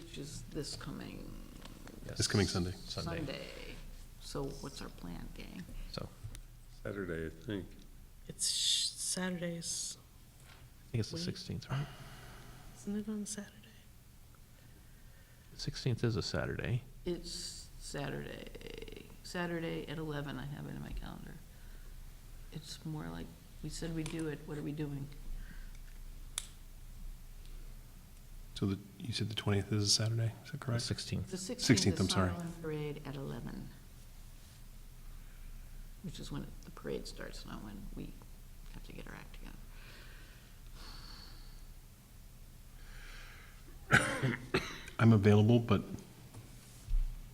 which is this coming This coming Sunday. Sunday, Sunday. So what's our plan, gang? so. Saturday, I think. It's sh- Saturdays, I think it's the Wait. 16th, right? isn't it on Saturday? 16th is a Saturday. It's Saturday, Saturday at eleven, I have it in my calendar. It's more like, we said we do it, what are we doing? So the, you said the 20th is a Saturday, is that The correct? 16th. The sixteenth 16th, is I'm sorry. silent parade at eleven. Which is when the parade starts, not when we have to get our act together. I'm available, but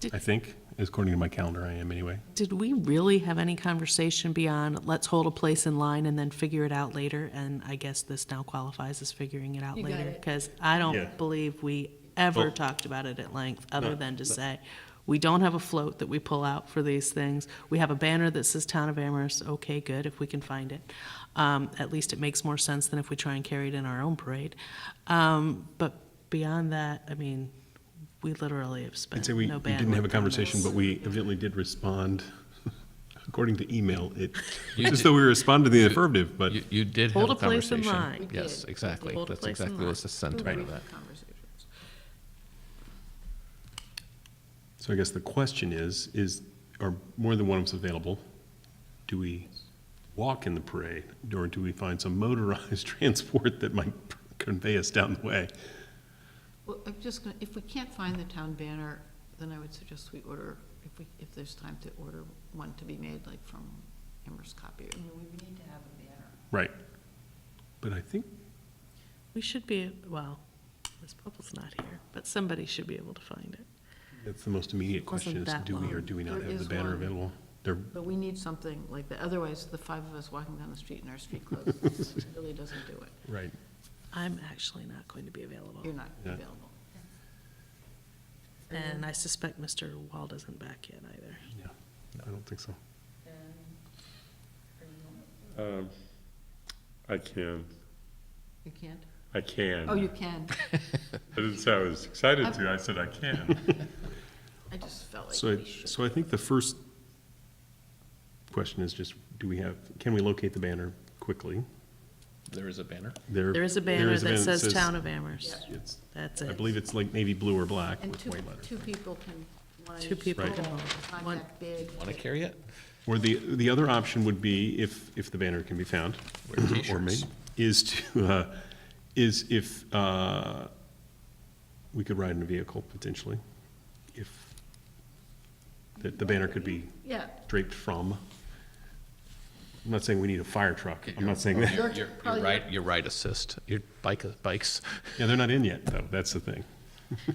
Did- I think, according to my calendar, I am anyway. Did we really have any conversation beyond, let's hold a place in line and then figure it out later? And I guess this now qualifies as figuring it out You got later. it. Because I Yeah. don't believe we ever Well- talked about it at length, other No, than to no. say, we don't have a float that we pull out for these things. We have a banner that says Town of Amherst, okay, good, if we can find it. Um, At least it makes more sense than if we try and carry it in our own parade. Um, But beyond that, I mean, we literally have I'd spent say we no we didn't have a bandwidth on this. conversation, but we evidently did respond, according to email, it, You just did- though we responded in the affirmative, but You, you did have Hold a a place in conversation. line. We did. Yes, We exactly. Hold a That's place in exactly what's line. the sentiment of Brief that. Conversations. So I guess the question is, is, are more than one of us available? Do we walk in the parade, or do we find some motorized transport that might convey us down the way? Well, I'm just gonna, if we can't find the town banner, then I would suggest we order, if we, if there's time to order one to be made, like from Amherst Copy. I mean, we need to have a banner. Right. But I think, We should be, well, Ms. Bubble's not here, but somebody should be able to find it. that's the most immediate Wasn't question, is that do we or long. do we not There have the is banner one. available? There, But we need something like that, otherwise the five of us walking down the street in our street clothes really doesn't do it. right. I'm actually not going to be available, You're not Yeah. available. and I suspect Mr. Wald isn't back yet either. Yeah, I don't think so. Um, I can, You can't? I can. Oh, you can. I didn't say I was excited to, I said I can. I just felt So, like I- we should. so I think the first question is just, do we have, can we locate the banner quickly? There is a banner. There is a banner that says Town of Amherst. It's, That's I it. believe it's like navy blue or black And with two, white letters. two people can, one. Two people Right. can hold. Not One- that big. Want to carry it? Or the, the other option would be, if, if the banner can be found. Wear or t-shirts. made, Is to, uh, is if, uh, we could ride in a vehicle potentially, if, that the banner could be Yeah, draped from. I'm not saying we need a fire truck, I'm not saying that. Your, Your- your, your probably- right, your right assist, your bike, bikes. Yeah, they're not in yet, though, that's the thing.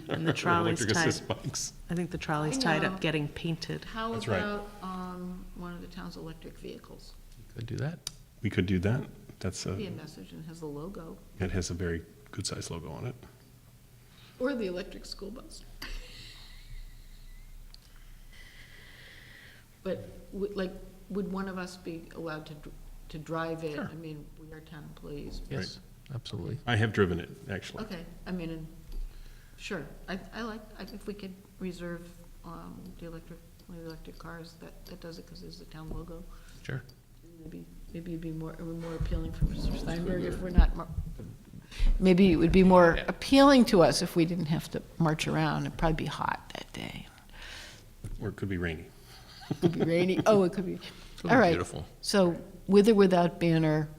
And the trolley's Electric tied, assist bikes. I think the trolley's tied know. up getting painted. how That's right. about, um, one of the town's electric vehicles? Could do that. We could do that, that's Be a a, message and has a logo, that has a very good-sized logo on it. or the electric school bus. But, would, like, would one of us be allowed to, dr- to drive it? Sure. I mean, we are town employees. Yes, absolutely. I have driven it, actually. Okay, I mean, and, sure, I, I like, I- if we could reserve, um, the electric, one of the electric cars, that, that does it, cause there's the town logo. Sure. Maybe, maybe it'd be more, it would be more appealing for Mr. Steinberg if we're not, mar- maybe it would be more Yeah. appealing to us if we didn't have to march around. It'd probably be hot that day. Or it could be rainy. It could be rainy. Oh, it could be, It'll be all right. Beautiful. So with or without banner,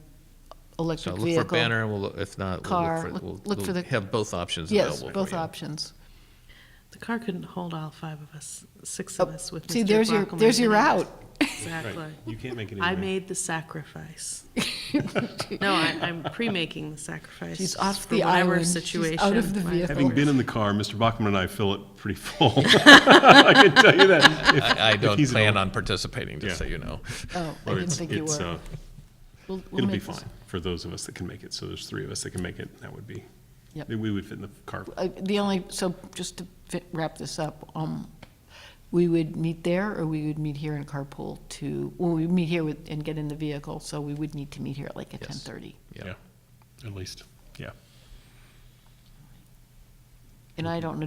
So electric look vehicle. for banner, and we'll, look- if not, we'll Car, look for, look- we'll, look for we'll the- have both options available Yes, for you. both options. The car couldn't hold all five of us, six Oh, of us with Mr. See, there's your, Bachman there's your in it. route. Exactly. You can't make it I anyway. made the sacrifice. No, I, I'm pre-making the sacrifice. She's off for the whatever island. She's Situation. out of the my- vehicle. Having been in the car, Mr. Bachman and I fill it pretty full. I can tell you that. If- I, I if don't he's at plan all- on participating, just Yeah. so you know. Oh, I or didn't it's- think you it's, were. uh, We'll- we'll It'll be make this- fine for those of us that can make it. So there's three of us that can make it. That would be, Yep. we would fit in the car. Uh, The only, so just to fi- wrap this up, um, we would meet there or we would meet here in carpool to, well, we meet here with, and get in the vehicle, so we would need to meet here at like at Yes. ten thirty. Yeah. At least, yeah. And I don't know